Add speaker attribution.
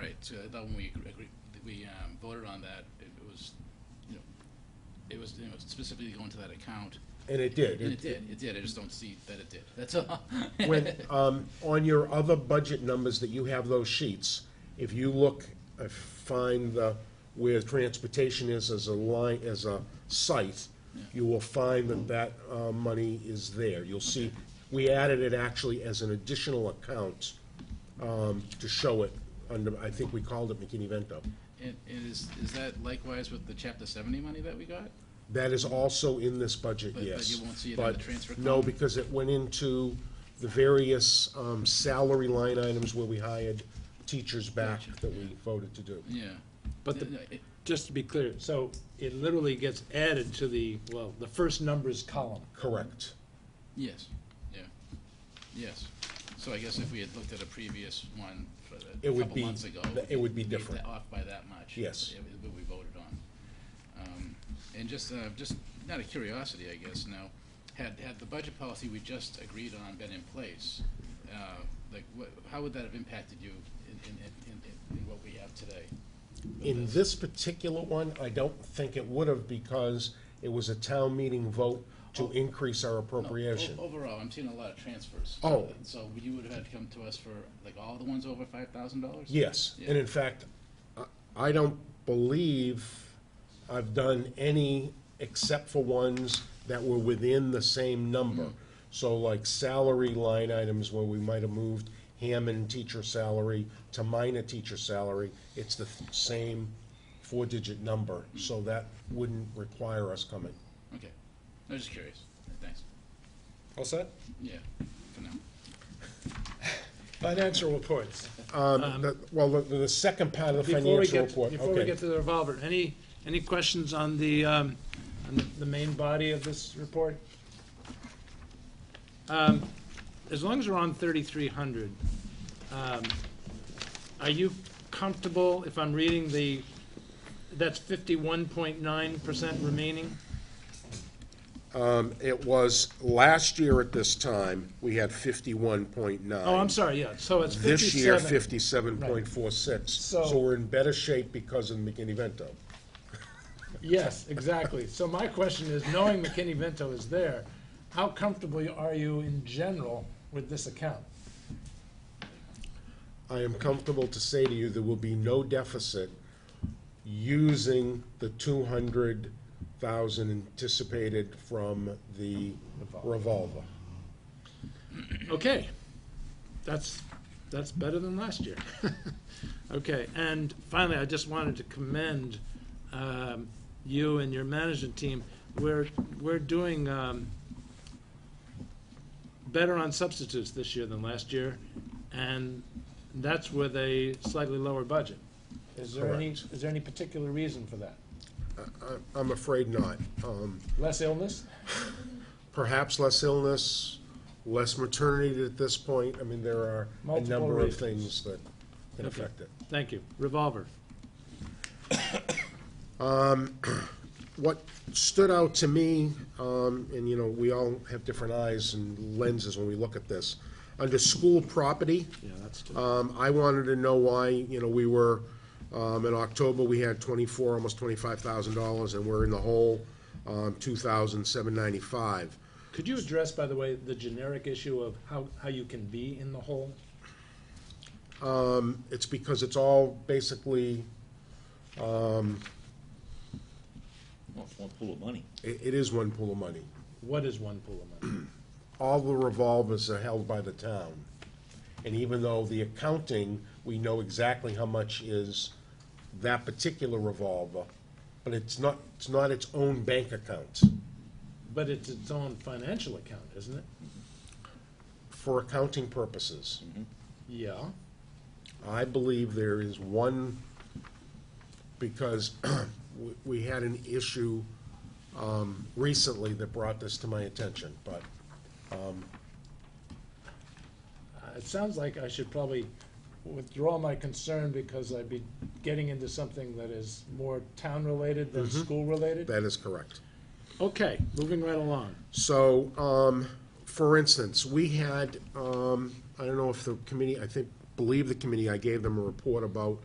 Speaker 1: So I thought when we agree, agree- we um, voted on that, it was, you know, it was, you know, specifically going to that account.
Speaker 2: And it did.
Speaker 1: And it
Speaker 2: It-
Speaker 1: did, it did, I just don't see that it did, that's all.
Speaker 2: When, um, on your other budget numbers that you have those sheets, if you look, uh, find the, where transportation is as a line, as a site, you will find that that, uh, money is there. You'll see, we added it actually as an additional account, um, to show it under, I think we called it McKinney-Vento.
Speaker 1: And, and is, is that likewise with the chapter seventy money that we got?
Speaker 2: That is also in this budget,
Speaker 1: But- but
Speaker 2: yes.
Speaker 1: you won't see it in the
Speaker 2: But
Speaker 1: transfer
Speaker 2: No,
Speaker 1: column?
Speaker 2: because it went into the various um, salary line items where we hired teachers back that we voted to do.
Speaker 1: Yeah.
Speaker 3: But the-
Speaker 1: No, no, it-
Speaker 3: Just to be clear, so it literally gets added to the, well, the first numbers column.
Speaker 2: Correct.
Speaker 1: Yes, yeah, yes. So I guess if we had looked at a previous one for the-
Speaker 2: It
Speaker 1: a
Speaker 2: would
Speaker 1: couple
Speaker 2: be-
Speaker 1: months ago.
Speaker 2: th- it would be
Speaker 1: we'd
Speaker 2: different.
Speaker 1: Off by that much.
Speaker 2: Yes.
Speaker 1: It was What we voted on. Um, And just, uh, just out of curiosity, I guess, now, had, had the budget policy we just agreed on been in place, uh, like, what, how would that have impacted you in, in, in- in, in what we have today?
Speaker 2: In this particular one, I don't think it would have because it was a town meeting vote to increase
Speaker 1: Oh.
Speaker 2: our
Speaker 1: No, Oh, o-
Speaker 2: appropriation.
Speaker 1: Overall, I'm seeing a lot of transfers.
Speaker 2: Oh.
Speaker 1: So you would have had to come to us for, like, all the ones over five thousand dollars?
Speaker 2: Yes,
Speaker 1: Yeah.
Speaker 2: and in fact, I- I don't believe I've done any except for ones that were within the same number.
Speaker 3: Mm-hmm.
Speaker 2: So like salary line items where we might have moved Hammond teacher salary to minor teacher salary, it's the th- same four-digit number, so that wouldn't require us coming.
Speaker 1: Okay, I was just curious, thanks,
Speaker 4: All set?
Speaker 1: yeah, for now.
Speaker 4: Financial reports.
Speaker 2: Um, the- Well, the, the second part of the
Speaker 3: Before we
Speaker 2: financial
Speaker 3: get,
Speaker 2: report,
Speaker 3: before we
Speaker 2: okay.
Speaker 3: get to the revolver, any, any questions on the, um, on the- the main body of this report? Um, As long as we're on thirty-three hundred, um, are you comfortable if I'm reading the, that's fifty-one point nine percent remaining?
Speaker 2: Um, It was, last year at this time, we had fifty-one point nine.
Speaker 3: Oh, I'm sorry, yeah, so it's fifty-seven.
Speaker 2: This year, fifty-seven point four six, so
Speaker 3: So-
Speaker 2: we're in better shape because of McKinney-Vento.
Speaker 3: Yes, exactly. So my question is, knowing McKinney-Vento is there, how comfortable are you in general with this account?
Speaker 2: I am comfortable to say to you, there will be no deficit using the two hundred thousand anticipated from the revolver.
Speaker 3: Okay, that's, that's better than last year. Okay, and finally, I just wanted to commend um, you and your management team. We're, we're doing um, better on substitutes this year than last year, and that's with a slightly lower budget. Is there any, is there any particular reason for that?
Speaker 2: I- I'm afraid not. Um,
Speaker 3: Less illness?
Speaker 2: Perhaps less illness, less maternity at this point, I mean, there are a
Speaker 3: Multiple
Speaker 2: number of
Speaker 3: reasons.
Speaker 2: things that can
Speaker 3: Okay.
Speaker 2: affect it.
Speaker 3: Thank you. Revolver.
Speaker 2: what stood out to me, um, and you know, we all have different eyes and lenses when we look at this. Under school property,
Speaker 3: Yeah, that's,
Speaker 2: um, I wanted to know why, you know, we were, um, in October, we had twenty-four, almost twenty-five thousand dollars, and we're in the hole, um, two thousand seven ninety-five.
Speaker 3: could you address, by the way, the generic issue of how, how you can be in the hole?
Speaker 2: It's because it's all basically,
Speaker 4: Well, it's one pool of money.
Speaker 2: it, it is one pool of money.
Speaker 3: What is one pool of money?
Speaker 2: all the revolvers are held by the town. And even though the accounting, we know exactly how much is that particular revolver, but it's not, it's not its own bank account.
Speaker 3: But it's its own financial account, isn't it?
Speaker 2: For accounting purposes,
Speaker 3: Yeah. Uh,
Speaker 2: I believe there is one, because we- we had an issue um, recently that brought this to my attention, but
Speaker 3: Uh, It sounds like I should probably withdraw my concern because I'd be getting into something that is more town-related than school-related.
Speaker 2: that is correct.
Speaker 3: Okay, moving right along.
Speaker 2: So, um, for instance, we had, um, I don't know if the committee, I think, believe the committee, I gave them a report about